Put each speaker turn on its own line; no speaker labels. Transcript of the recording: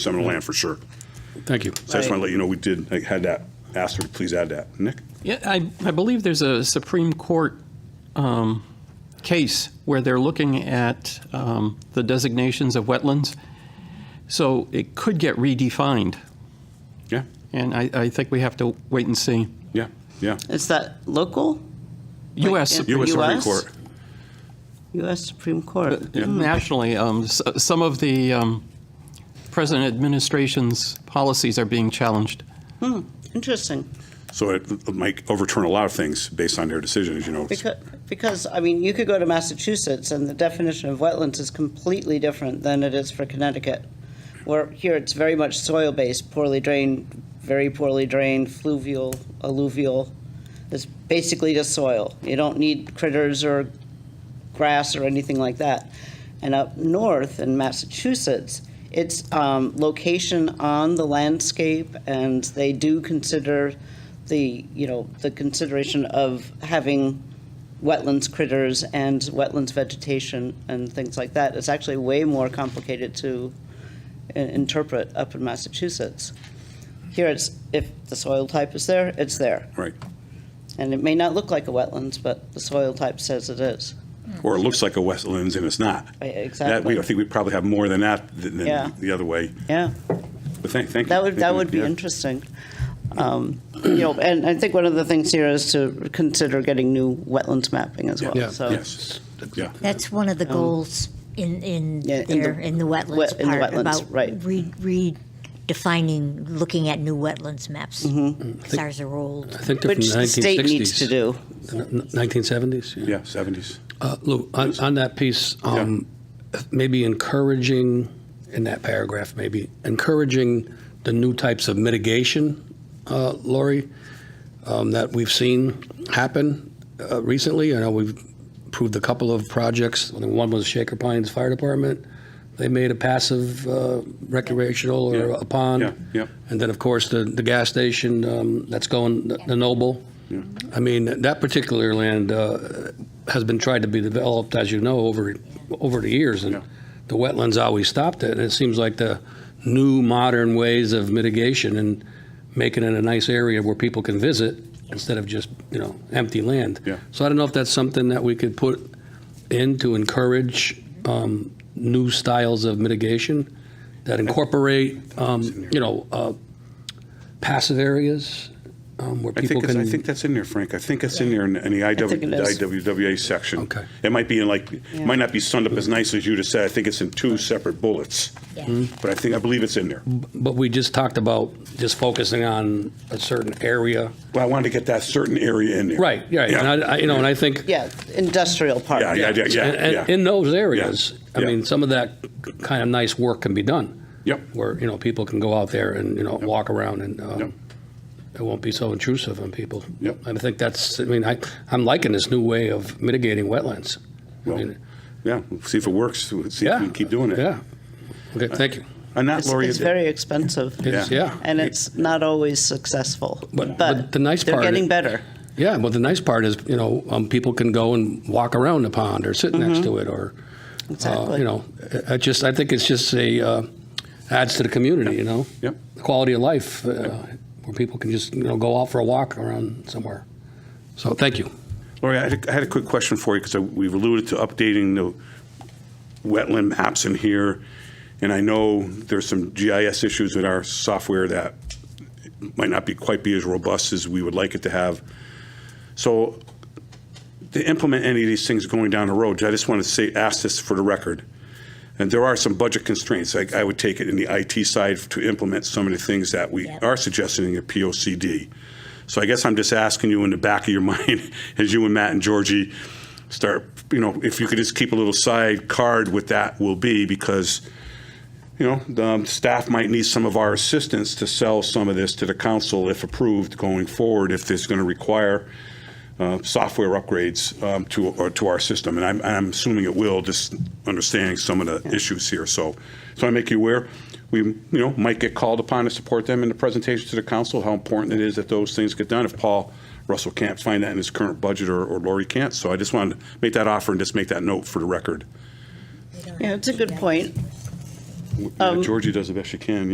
Seminole Land for sure.
Thank you.
So I just want to let you know, we did, I had that, asked her to please add that. Nick?
Yeah, I, I believe there's a Supreme Court um, case where they're looking at um, the designations of wetlands. So it could get redefined,
Yeah,
and I, I think we have to wait and see.
yeah, yeah.
Is that local?
U.S.
Like,
Supreme-
U.S. Supreme
US?
Court.
U.S. Supreme Court?
nationally, um, s- some of the um, present administration's policies are being challenged.
Interesting.
So it might overturn a lot of things based on their decision, as you know.
Because, because, I mean, you could go to Massachusetts and the definition of wetlands is completely different than it is for Connecticut. Where here it's very much soil-based, poorly drained, very poorly drained, fluvial, alluvial. It's basically just soil. You don't need critters or grass or anything like that. And up north in Massachusetts, it's um, location on the landscape, and they do consider the, you know, the consideration of having wetlands critters and wetlands vegetation and things like that. It's actually way more complicated to i- interpret up in Massachusetts. Here, it's, if the soil type is there, it's there.
Right.
And it may not look like a wetlands, but the soil type says it is.
Or it looks like a Westlands and it's not.
Uh,
That, we, I
Exactly.
think we probably have more than that th-
Yeah.
than the other way.
Yeah.
But thank, thank you.
That would,
Thank
that
you.
would be
Yeah.
interesting. Um, You know, and I think one of the things here is to consider getting new wetlands mapping as
Yeah.
well, so.
Yes, yeah.
That's one of the goals in, in
Um, Yeah, in
there,
the-
in the
wet-
wetlands
in the
part,
wetlands,
about
right.
re- redefining, looking at new wetlands maps.
Mm-hmm.
Because ours are old.
I think they're from
Which
the 1960s.
the state needs to do.
N- 1970s? Yeah.
Yeah, 70s.
Uh, Lou, on, on that piece, um, maybe encouraging, in that paragraph, maybe encouraging the new types of mitigation, uh, Lori, um, that we've seen happen uh, recently. I know we've approved a couple of projects. I think One was Shaker Pines Fire Department. They made a passive uh, recreational or
Yeah.
a pond.
Yeah, yeah.
And then, of course, the, the gas station um, that's going, the, the Noble. I mean, that particular land uh, has been tried to be developed, as you know, over over the years, and
Yeah.
the wetlands always stopped it. And it seems like the new modern ways of mitigation and making it a nice area where people can visit instead of just you know empty land.
Yeah.
So I don't know if that's something that we could put in to encourage um, new styles of mitigation that incorporate um, you know uh, passive areas um, where
I
people
think, it's-
can.
I think that's in there, Frank. I think it's in there in, in the
think it is.
IW, IWWA section.
Okay.
It might be in like, it might not be summed up as nice as you just said. I think it's in two separate bullets.
Yeah.
Hmm.
But I think, I believe it's in there.
But we just talked about just focusing on a certain area.
Well, I wanted to get that certain area in there.
Right, right. And I, I- you know, and I think.
Yeah, industrial park.
Yeah, yeah, yeah,
and-
yeah,
and
yeah.
In those areas, I
Yeah.
mean, some of that kind of nice work can be done.
Yep.
Where, you know, people can go out there and, you know, walk around and uh,
Yep.
it won't be so intrusive on people.
Yep.
And I think that's, I mean, I, I'm liking this new way of mitigating wetlands. I
Well,
mean,
Yeah, we'll see if it works, We'll see if
Yeah.
we can keep doing it.
Yeah. Okay, thank you.
And that,
It's
Lori, uh,
it's very expensive.
It's- Yeah.
And it's not always successful,
But-
but
but the nice
they're
part-
getting better.
Yeah, well, the nice part is, you know, um, people can go and walk around the pond or sit next to it or, uh,
Exactly.
you know, I I just, I think it's just a, uh, adds to the community, you know?
Yep.
Quality of life, uh, where people can just, you know, go out for a walk around somewhere. So thank you.
Lori, I had a- I had a quick question for you, because we've alluded to updating the wetland maps in here, and I know there's some GIS issues with our software that might not be, quite be as robust as we would like it to have. So to implement any of these things going down the road, I just want to say, ask this for the record. And there are some budget constraints, like I would take it in the IT side to implement some of the things that we
Yep.
are suggesting in the POCD. So I guess I'm just asking you in the back of your mind, as you and Matt and Georgie start, you know, if you could just keep a little side card with that will be, because, you know, the um, staff might need some of our assistance to sell some of this to the council if approved going forward, if this is going to require uh, software upgrades um, to, or to our system. And I'm, and I'm assuming it will, just understanding some of the issues here. So, so I make you aware, we, you know, might get called upon to support them in the presentation to the council, how important it is that those things get done. If Paul Russell can't find that in his current budget or, or Lori can't. So I just wanted to make that offer and just make that note for the record.
Yeah, it's a good point.
Yeah, Uh, Georgie does the best she can,